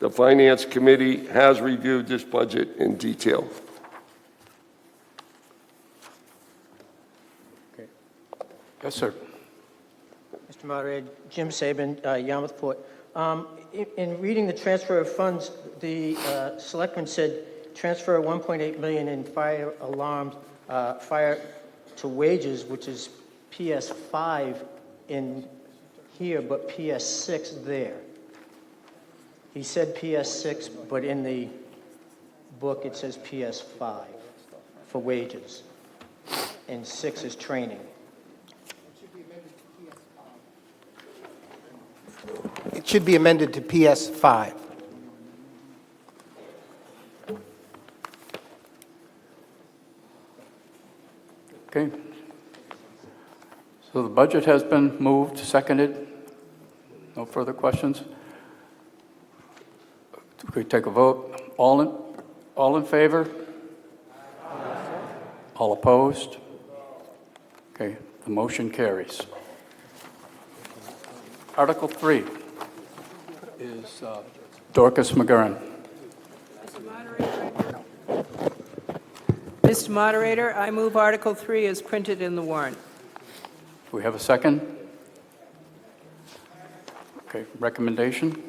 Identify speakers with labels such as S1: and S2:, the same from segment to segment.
S1: The Finance Committee has reviewed this budget in detail.
S2: Yes, sir.
S3: Mr. Moderator, Jim Saban, uh, Yarmouthport. Um, i- In reading the transfer of funds, the uh, selectman said transfer 1.8 million in fire alarm, uh, fire to wages, which is PS5 in here, but PS6 there. He said PS6, but in the book, it says PS5 for wages, and 6 is training.
S4: It should be amended to PS5.
S2: Okay. So the budget has been moved, seconded. No further questions? Could we take a vote? All in, all in favor? All opposed? Okay, the motion carries. Article 3 is uh, Dorcas McGurran.
S5: Mr. Moderator, I move Article 3 as printed in the warrant.
S2: Do we have a second? Okay, recommendation?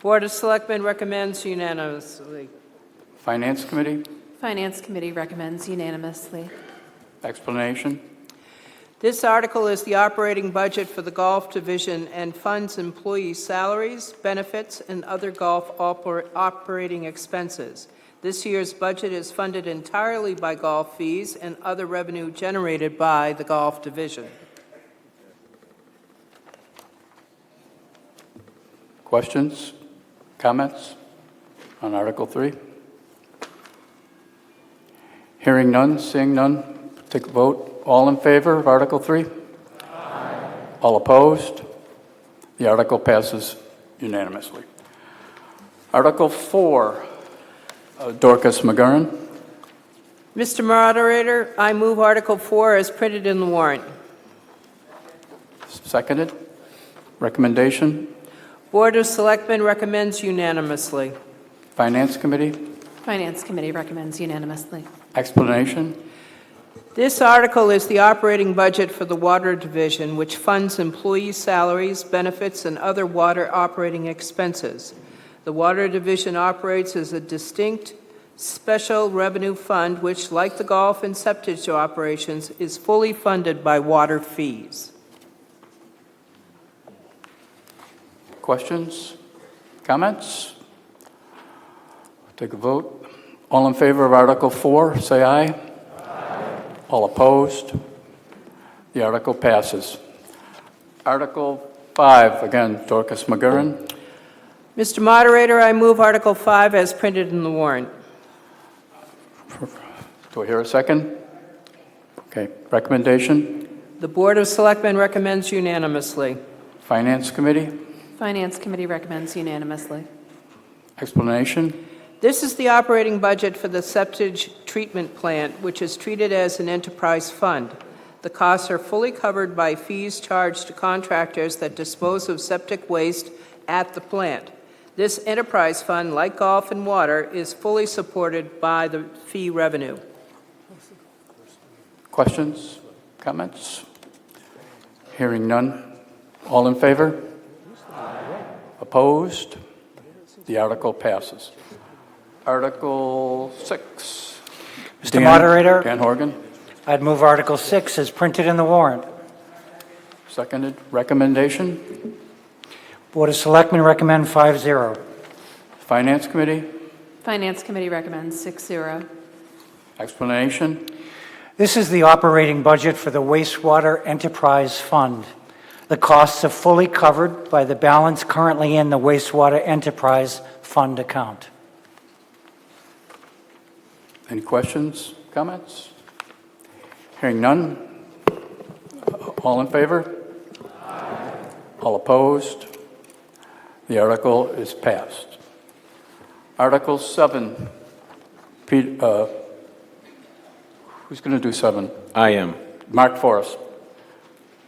S5: Board of Selectmen recommends unanimously.
S2: Finance Committee?
S6: Finance Committee recommends unanimously.
S2: Explanation?
S5: This article is the operating budget for the Golf Division and funds employee salaries, benefits, and other golf oper- operating expenses. This year's budget is funded entirely by golf fees and other revenue generated by the Golf Division.
S2: Questions? Comments on Article 3? Hearing none, seeing none, take a vote. All in favor of Article 3? All opposed? The article passes unanimously. Article 4, uh, Dorcas McGurran.
S5: Mr. Moderator, I move Article 4 as printed in the warrant.
S2: Seconded. Recommendation,
S5: Board of Selectmen recommends unanimously.
S2: Finance Committee.
S6: Finance Committee recommends unanimously.
S2: Explanation,
S5: This article is the operating budget for the Water Division, which funds employee salaries, benefits, and other water operating expenses. The Water Division operates as a distinct special revenue fund, which, like the golf and septic operations, is fully funded by water fees.
S2: questions, comments? Take a vote. All in favor of Article 4, say aye. All opposed? The article passes. Article 5, again, Dorcas McGurran.
S5: Mr. Moderator, I move Article 5 as printed in the warrant.
S2: Do I hear a second? Okay, recommendation,
S5: The Board of Selectmen recommends unanimously.
S2: Finance Committee.
S6: Finance Committee recommends unanimously.
S2: Explanation,
S5: This is the operating budget for the septic treatment plant, which is treated as an enterprise fund. The costs are fully covered by fees charged to contractors that dispose of septic waste at the plant. This enterprise fund, like golf and water, is fully supported by the fee revenue.
S2: questions, comments? Hearing none. All in favor? Opposed? The article passes. Article 6.
S7: Mr.
S2: Dan-
S7: Moderator,
S2: Dan Horgan,
S7: I'd move Article 6 as printed in the warrant.
S2: seconded. Recommendation,
S7: Board of Selectmen recommend 5-0.
S2: Finance Committee.
S6: Finance Committee recommends 6-0.
S2: Explanation,
S7: This is the operating budget for the wastewater enterprise fund. The costs are fully covered by the balance currently in the wastewater enterprise fund account.
S2: any questions, comments? Hearing none. All in favor? All opposed? The article is passed. Article 7, Pete, uh, who's going to do 7?
S8: I am.
S2: Mark Forrest.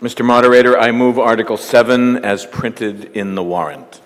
S8: Mr. Moderator, I move Article 7 as printed in the warrant.